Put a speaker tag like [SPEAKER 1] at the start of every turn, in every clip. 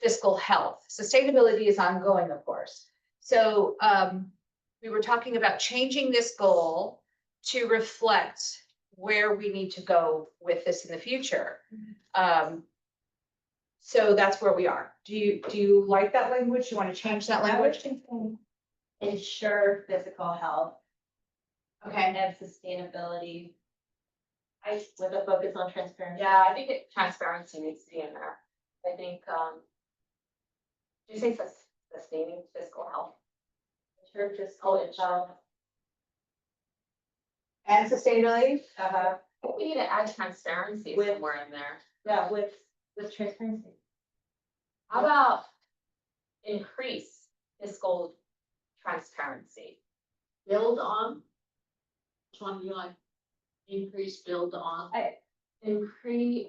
[SPEAKER 1] fiscal health. Sustainability is ongoing, of course. So um, we were talking about changing this goal to reflect where we need to go with this in the future. Um, so that's where we are. Do you, do you like that language? You want to change that
[SPEAKER 2] I
[SPEAKER 1] language?
[SPEAKER 2] would think Ensure physical health
[SPEAKER 1] Okay.
[SPEAKER 2] and sustainability. I, with a focus on transparency.
[SPEAKER 3] Yeah, I think it- transparency needs to be in there. I think, um. Do you say sus- sustaining fiscal health?
[SPEAKER 2] Ensure physical
[SPEAKER 3] Oh,
[SPEAKER 2] and health.
[SPEAKER 1] And sustainability?
[SPEAKER 2] Uh,
[SPEAKER 3] We need to add transparency
[SPEAKER 2] With-
[SPEAKER 3] somewhere in there.
[SPEAKER 2] yeah, with, with transparency.
[SPEAKER 3] How about increase fiscal transparency?
[SPEAKER 4] build on. Which one do you like? Increase, build on.
[SPEAKER 3] Increase.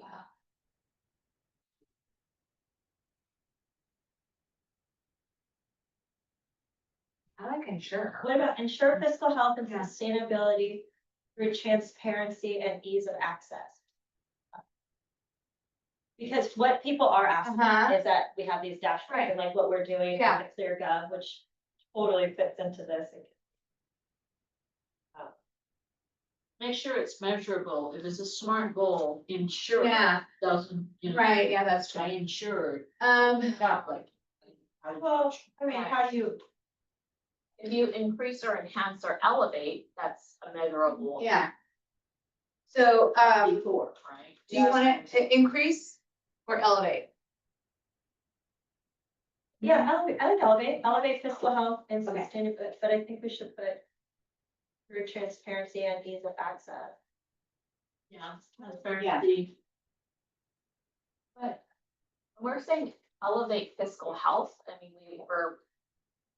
[SPEAKER 1] I like ensure.
[SPEAKER 2] What about ensure fiscal health and
[SPEAKER 1] Yeah.
[SPEAKER 2] sustainability through transparency and ease of access? Because what people are asking
[SPEAKER 1] Uh-huh.
[SPEAKER 2] is that we have these dashboards
[SPEAKER 1] Right.
[SPEAKER 2] and like what we're doing
[SPEAKER 1] Yeah.
[SPEAKER 2] on the clear gov, which totally fits into this.
[SPEAKER 4] Make sure it's measurable. If it's a smart goal, ensure it
[SPEAKER 1] Yeah,
[SPEAKER 4] doesn't, you know,
[SPEAKER 1] right, yeah, that's
[SPEAKER 4] I
[SPEAKER 1] right.
[SPEAKER 4] insured,
[SPEAKER 1] Um,
[SPEAKER 4] not like.
[SPEAKER 2] Well, I mean, how do you?
[SPEAKER 3] If you increase or enhance or elevate, that's a measurable.
[SPEAKER 1] yeah. So um,
[SPEAKER 4] Before, right?
[SPEAKER 1] do you want to increase or elevate?
[SPEAKER 2] Yeah, elevate, I like elevate, elevate fiscal health and
[SPEAKER 1] Okay.
[SPEAKER 2] sustainability, but I think we should put through transparency and ease of access.
[SPEAKER 4] Yeah, transparency.
[SPEAKER 3] We're saying elevate fiscal health. I mean, we were.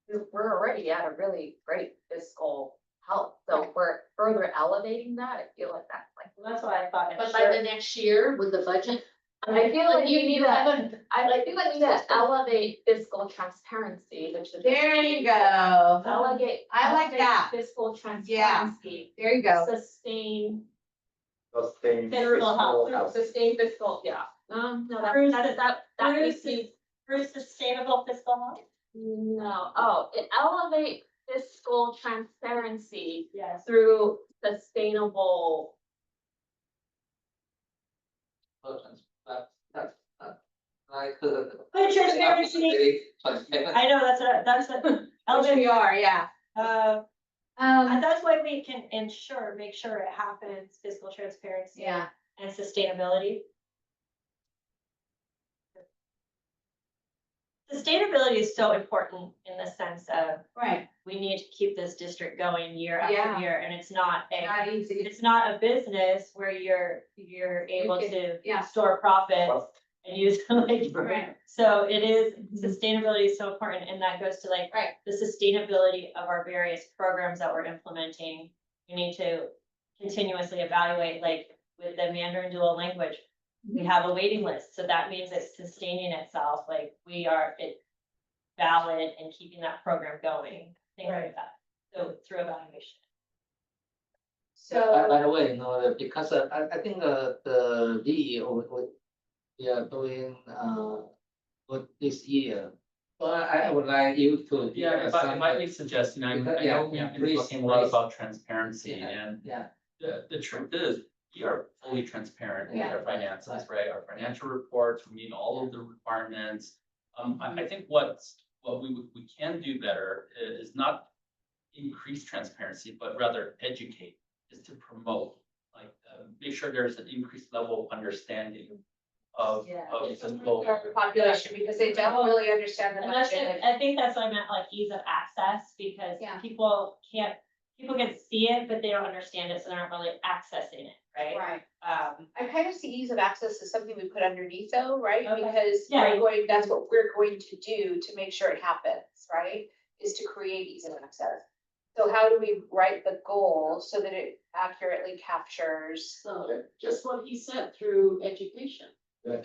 [SPEAKER 3] We're we're already at a really great fiscal health, so we're further elevating that. I feel like that's like.
[SPEAKER 2] And That's why I thought.
[SPEAKER 4] But by
[SPEAKER 2] ensure-
[SPEAKER 4] the next year with the budget.
[SPEAKER 3] I feel like you need that.
[SPEAKER 4] haven't-
[SPEAKER 3] I like feel like we need to elevate fiscal transparency, which is.
[SPEAKER 1] go.
[SPEAKER 3] Elevate.
[SPEAKER 1] I like
[SPEAKER 3] elevate
[SPEAKER 1] that.
[SPEAKER 3] Fiscal transparency.
[SPEAKER 1] There you go.
[SPEAKER 3] Sustain,
[SPEAKER 5] Sustain.
[SPEAKER 2] Federal
[SPEAKER 5] fiscal
[SPEAKER 2] health.
[SPEAKER 5] health.
[SPEAKER 3] sustain fiscal, yeah. Um, no, that,
[SPEAKER 2] Bruce-
[SPEAKER 3] that, that, that
[SPEAKER 2] Bruce
[SPEAKER 3] makes me
[SPEAKER 2] Through sustainable fiscal health?
[SPEAKER 3] No, oh, it elevate fiscal transparency
[SPEAKER 2] Yes.
[SPEAKER 3] through sustainable.
[SPEAKER 2] But transparency, I know, that's a, that's a,
[SPEAKER 1] Which we
[SPEAKER 2] elevate,
[SPEAKER 1] are, yeah.
[SPEAKER 2] uh, and
[SPEAKER 1] Um,
[SPEAKER 2] that's why we can ensure, make sure it happens, fiscal transparency.
[SPEAKER 1] yeah.
[SPEAKER 2] And sustainability. Sustainability is so important in the sense of
[SPEAKER 1] Right.
[SPEAKER 2] we need to keep this district going year
[SPEAKER 1] Yeah.
[SPEAKER 2] after year, and it's not a,
[SPEAKER 1] Not easy.
[SPEAKER 2] it's not a business where you're, you're able
[SPEAKER 1] can-
[SPEAKER 2] to
[SPEAKER 1] yeah.
[SPEAKER 2] store profits and use them like. for-
[SPEAKER 1] Right.
[SPEAKER 2] So it is, sustainability is so important, and that goes to like.
[SPEAKER 1] Right.
[SPEAKER 2] The sustainability of our various programs that we're implementing, we need to continuously evaluate, like with the Mandarin dual language. We have a waiting list, so that means it's sustaining itself, like we are, it valid and keeping that program going, things like that. So through evaluation.
[SPEAKER 6] By,
[SPEAKER 1] So,
[SPEAKER 6] by the way, no, uh, because uh, I, I think uh, the D we, we, we are doing, uh, for this year. But I, I would like you to. give
[SPEAKER 7] Yeah,
[SPEAKER 6] us
[SPEAKER 7] if I,
[SPEAKER 6] some,
[SPEAKER 7] if I may suggest, you know, I
[SPEAKER 6] Because-
[SPEAKER 7] I
[SPEAKER 6] yeah,
[SPEAKER 7] know we've been
[SPEAKER 6] please,
[SPEAKER 7] talking a lot
[SPEAKER 6] please.
[SPEAKER 7] about transparency
[SPEAKER 6] Yeah.
[SPEAKER 7] and
[SPEAKER 6] Yeah,
[SPEAKER 7] the, the truth is, we are fully transparent with
[SPEAKER 1] Yeah.
[SPEAKER 7] our finances, right? Our financial reports, we meet all of the requirements. Um, I, I think what's, what we, would- we can do better i- is not increase transparency, but rather educate, is to promote. Like, uh, make sure there's an increased level of understanding of,
[SPEAKER 3] Yeah.
[SPEAKER 7] of simple.
[SPEAKER 1] uh, population, because they don't really understand the
[SPEAKER 2] And that's,
[SPEAKER 1] budget.
[SPEAKER 2] it. I think that's what I meant, like ease of access, because
[SPEAKER 1] Yeah.
[SPEAKER 2] people can't, people can see it, but they don't understand it, so they're not really accessing it, right?
[SPEAKER 1] Right.
[SPEAKER 2] Um,
[SPEAKER 1] I kind of see ease of access as something we put underneath though, right?
[SPEAKER 2] Okay.
[SPEAKER 1] Because
[SPEAKER 2] Yeah.
[SPEAKER 1] we're going, that's what we're going to do to make sure it happens, right? Is to create ease of access. So how do we write the goal so that it accurately captures?
[SPEAKER 4] So just what he said through education.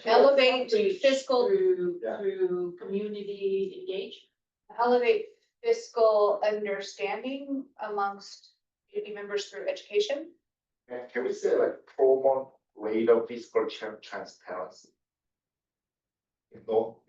[SPEAKER 1] Elevate
[SPEAKER 4] outreach,
[SPEAKER 1] fiscal-
[SPEAKER 4] Through,
[SPEAKER 5] Yeah.
[SPEAKER 4] through community engagement.
[SPEAKER 1] elevate fiscal understanding amongst community members through education?
[SPEAKER 5] Can- Can we say like promote greater fiscal tran- transparency? You know,